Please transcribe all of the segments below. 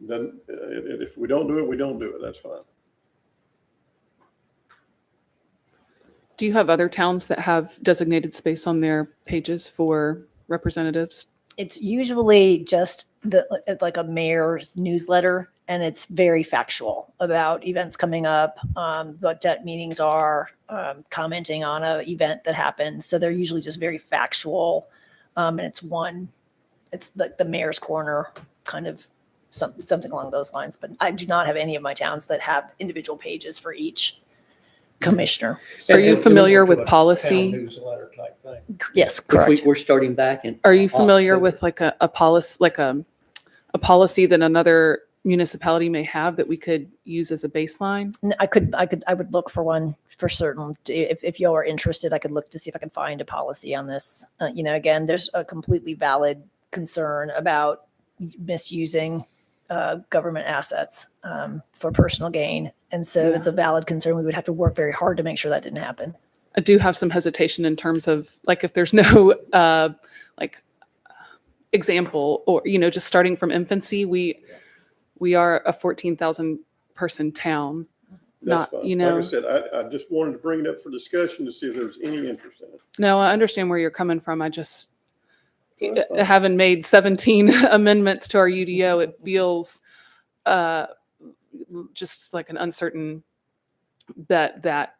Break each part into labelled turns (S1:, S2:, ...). S1: Then, uh, if if we don't do it, we don't do it. That's fine.
S2: Do you have other towns that have designated space on their pages for representatives?
S3: It's usually just the, it's like a mayor's newsletter, and it's very factual about events coming up, um, what debt meetings are, um, commenting on a event that happened. So they're usually just very factual, um, and it's one, it's like the mayor's corner, kind of some, something along those lines. But I do not have any of my towns that have individual pages for each commissioner.
S2: Are you
S4: And- and
S2: familiar
S4: similar
S2: with
S4: to a town
S2: policy?
S4: Newsletter type thing.
S3: Yes,
S4: Which
S3: correct.
S4: we, we're starting back in.
S2: Are you familiar
S4: October.
S2: with like a, a policy, like a, a policy that another municipality may have that we could use as a baseline?
S3: N- I could, I could, I would look for one for certain. D- If, if y'all are interested, I could look to see if I can find a policy on this. Uh, you know, again, there's a completely valid concern about y- misusing uh, government assets um, for personal gain. And so it's a valid concern. We would have to work very hard to make sure that didn't happen.
S2: I do have some hesitation in terms of like if there's no uh, like example or you know just starting from infancy we we are a 14,000 person town
S1: That's
S2: Not-
S1: fine.
S2: you know-
S1: Like I said, I, I just wanted to bring it up for discussion to see if there was any interest in it.
S2: no I understand where you're coming from I just
S1: So that's fine.
S2: Uh, having made 17 amendments to our UDO it feels uh just like an uncertain bet that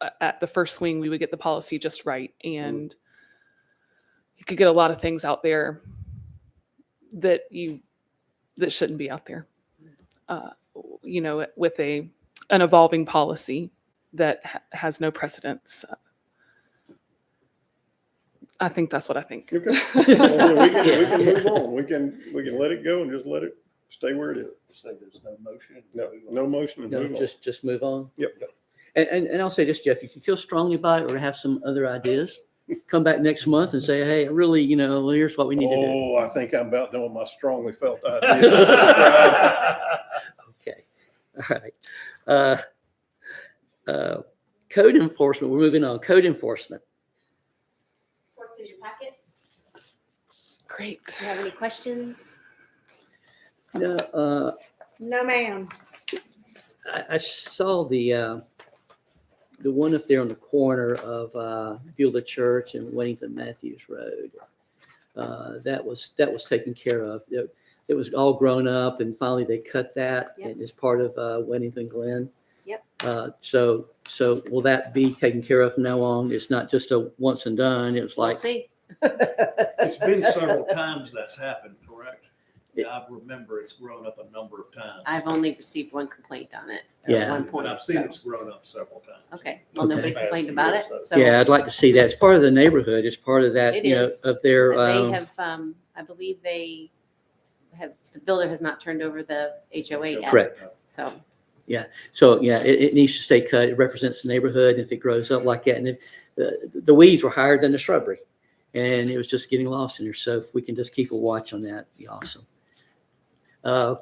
S2: uh, at the first swing we would get the policy just right and you could get a lot of things out there that you that shouldn't be out there uh, you know with a an evolving policy that ha- has no precedence i think that's what i think
S1: Okay. Well, then We can, we can move on. We can, we can let it go and just let it stay where it is.
S5: Say there's no motion.
S1: No, no motion and
S4: No,
S1: move on.
S4: just, just move on.
S1: Yep.
S4: And, and, and I'll say this, Jeff, if you feel strongly about it or have some other ideas, come back next month and say, hey, really, you know, well, here's what we need to do.
S1: Oh, I think I'm about doing my strongly felt idea.
S5: That's
S4: Okay, all right. Uh, uh, Code enforcement, we're moving on. Code enforcement.
S6: reports in your packets.
S2: great
S6: Do you have any questions?
S4: No, uh,
S6: No, ma'am.
S4: I, I saw the, uh, the one up there on the corner of, uh, Beulah Church and Wennington Matthews Road. Uh, that was, that was taken care of. It, it was all grown up and finally they cut that
S6: Yep.
S4: and it's part of, uh, Wennington Glen.
S6: Yep.
S4: Uh, so, so will that be taken care of from now on? It's not just a once and done. It's
S6: We'll
S4: like.
S6: see.
S5: It's been several times that's happened, correct?
S4: It-
S5: I remember it's grown up a number of times.
S6: I've only received one complaint on it. at
S4: Yeah.
S6: One
S5: And
S6: point.
S5: I've seen
S6: so-
S5: it's grown up several times.
S6: Okay, well, nobody
S5: Okay.
S6: complained about it, so.
S4: Yeah, I'd like to see that. It's part of the neighborhood. It's part of that,
S6: It
S4: you know,
S6: is,
S4: of their,
S6: But they
S4: um,
S6: have, um, I believe they have, the builder has not turned over the HOA yet.
S4: Correct.
S6: So,
S4: So, yeah, it, it needs to stay cut. It represents the neighborhood. and If it grows up like that, and if, the, the weeds were higher than the shrubbery and it was just getting lost in there. So if we can just keep a watch on that, it'd be awesome. Uh,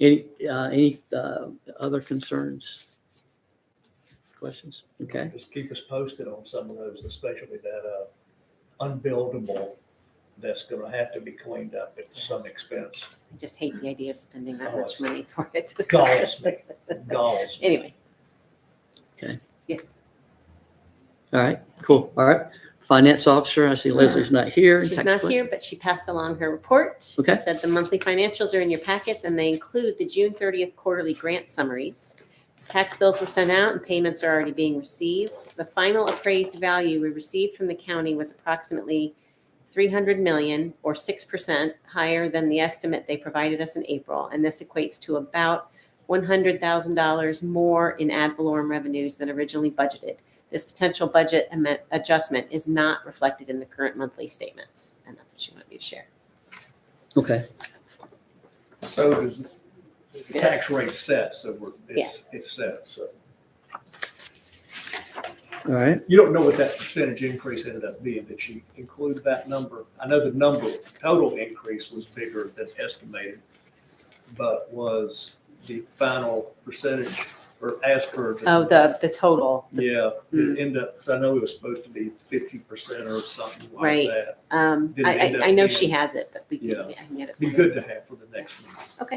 S4: any, uh, any, uh, other concerns? Questions? Okay.
S5: Just keep us posted on some of those, especially that, uh, unbuildable that's gonna have to be cleaned up at some expense.
S6: I just hate the idea of spending that
S5: Oh, it's-
S6: much money for it.
S5: Galls me, galls. me.
S6: Anyway.
S4: Okay.
S6: Yes.
S4: All right, cool. All right. Finance officer, I see Leslie's not here.
S6: She's
S4: Tax
S6: not
S4: collector.
S6: here, but she passed along her report. It
S4: Okay.
S6: Said the monthly financials are in your packets and they include the June thirtieth quarterly grant summaries. Tax bills were sent out and payments are already being received. The final appraised value we received from the county was approximately three hundred million or six percent higher than the estimate they provided us in April. And this equates to about one hundred thousand dollars more in ad valorem revenues than originally budgeted. This potential budget amen- adjustment is not reflected in the current monthly statements, and that's what she wanted me to share.
S4: Okay.
S5: So does, the tax rate set, so we're, it's, it's set, so.
S4: All right.
S5: You don't know what that percentage increase ended up being, that you include that number. I know the number, total increase was bigger than estimated, but was the final percentage or as per?
S6: Oh, the, the total,
S5: Yeah,
S6: Mm.
S5: it ended up, because I know it was supposed to be fifty percent or something like
S6: Right.
S5: that.
S6: um,
S5: Did it
S6: I,
S5: end
S6: I,
S5: up
S6: I know
S5: being-
S6: she has it, but we
S5: Yeah.
S6: can, I can get it.
S5: Be
S6: for her.
S5: good to have for the next one.